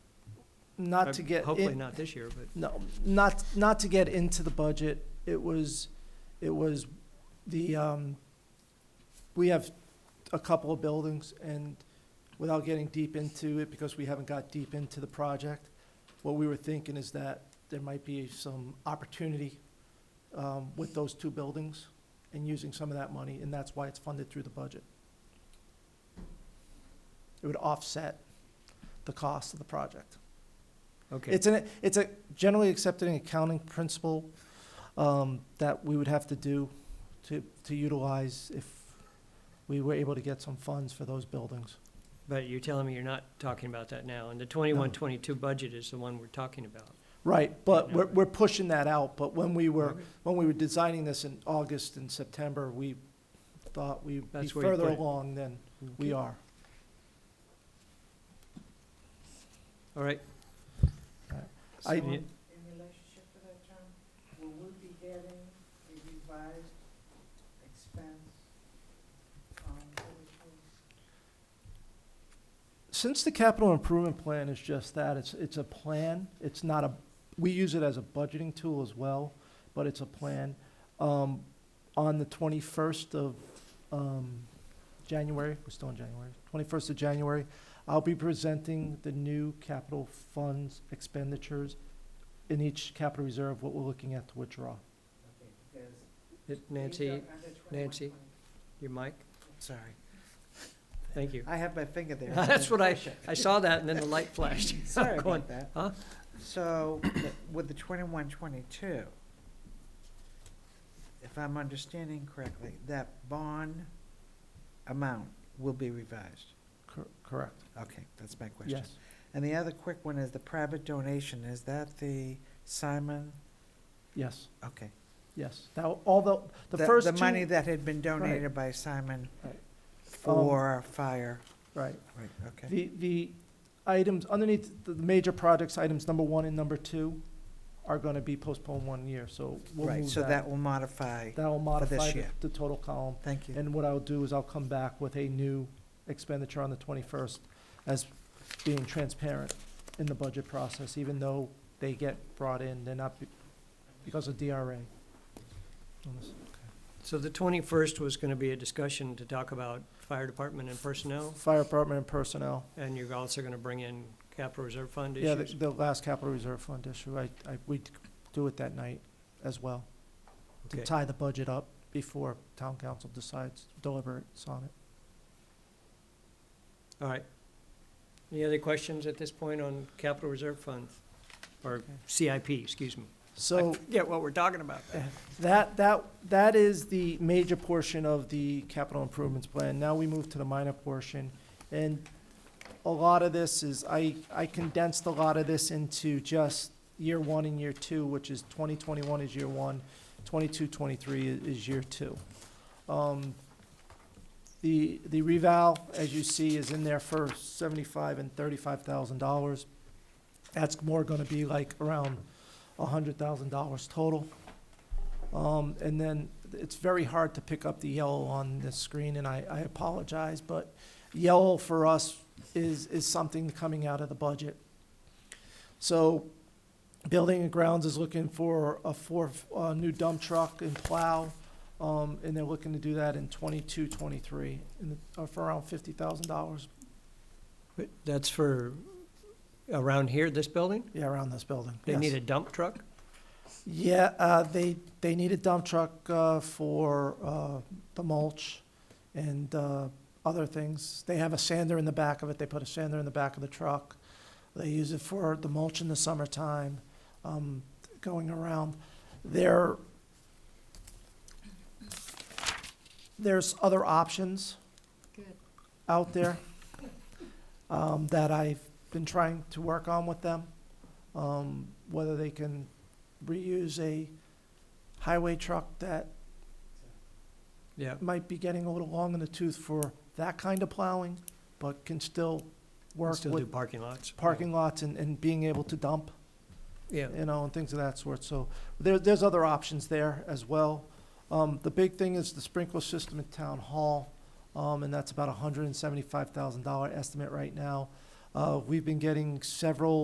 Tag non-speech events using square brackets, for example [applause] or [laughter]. not Uh, to get. Hopefully in- not this year, but No, not, not to get into the budget, it was, it was the, um, we have a couple of buildings and without getting deep into it, because we haven't got deep into the project, what we were thinking is that there might be some opportunity, um, with those two buildings and using some of that money, and that's why it's funded through the budget. It would offset the cost of the project. okay. It's an, it's a generally accepted accounting principle um, that we would have to do to, to utilize if we were able to get some funds for those buildings. But you're telling me you're not talking about that now, and the twenty-one, twenty-two budget is the one we're talking about. Right, but Yeah. Mm-hmm. we're, we're pushing that out, but when we were, when we were designing this in August and September, we thought we'd be That's where you further put it. along than we are. All right, I- So, In relationship to that term, will we be getting a revised expense um, on public works? Since the capital improvement plan is just that, it's, it's a plan, it's not a, we use it as a budgeting tool as well, but it's a plan. Um, on the twenty-first of, um, January, we're still in January, twenty-first of January, I'll be presenting the new capital funds expenditures in each capital reserve, what we're looking at to withdraw. Okay, because it- these Nancy, are under 21, Nancy? 20. your mic, Sorry, thank you. I have my finger there. [laughs] That's what I, Push it. I saw that and then [laughs] the light flashed. I'm Sorry going, about that. huh? So the- with the twenty-one, twenty-two, if I'm understanding correctly, that bond amount will be revised. Cor- Correct, Okay, that's my question. yes. And the other quick one is the private donation. Is that the Simon? Yes, Okay. yes. Now, although, the first The two- money that had been donated by Simon Right. Um, for fire. Right. Right, okay. The, the items underneath the the major projects, items number one and number two are gonna be postponed one year, so we'll Right, move so that. that will modify. That'll modify the- year. the total column, Thank you. and what I'll do is I'll come back with a new expenditure on the twenty-first as being transparent in the budget process, even though they get brought in, they're not be- because of DRA. So the twenty-first was gonna be a discussion to talk about fire department and personnel, Fire department and personnel, and you're also gonna bring in capital reserve fund yeah, the, issues? the last capital reserve fund issue, I, I, we do it that night as well. to Okay. tie the budget up before town council decides, deliberates on it. All right. Any other questions at this point on capital reserve fund? Or CIP, excuse me. I So forget what we're talking about. that, that, that is the major portion of the capital improvements plan. Now we move to the minor portion. And a lot of this is, I, I condensed a lot of this into just year one and year two, which is twenty twenty-one is year one, twenty-two, twenty-three i- is year two. Um, The, the reval, as you see, is in there for seventy-five and thirty-five thousand dollars. That's more gonna be like around a hundred thousand dollars total. Um, and then it's very hard to pick up the yellow on this screen, and I, I apologize, but yellow for us is, is something coming out of the budget. So Building and Grounds is looking for a four, uh, new dump truck and plow, um, and they're looking to do that in twenty-two, twenty-three, and, uh, for around fifty thousand dollars, But That's for around here, this building? yeah, around this building. They yes. need a dump truck? Yeah, uh, they, they need a dump truck, uh, for, uh, the mulch and, uh, other things. They have a sander in the back of it. They put a sander in the back of the truck. They use it for the mulch in the summertime, um, going around. There, there's other options Good. out there, um, that I've been trying to work on with them. Um, whether they can reuse a highway truck that Yeah, might be getting a little long in the tooth for that kind of plowing, but can still work still do with parking lots. parking lots and, and being able to dump, Yeah, you know, and things of that sort. So there, there's other options there as well. Um, the big thing is the sprinkler system at Town Hall, um, and that's about a hundred and seventy-five thousand dollar estimate right now. Uh, we've been getting several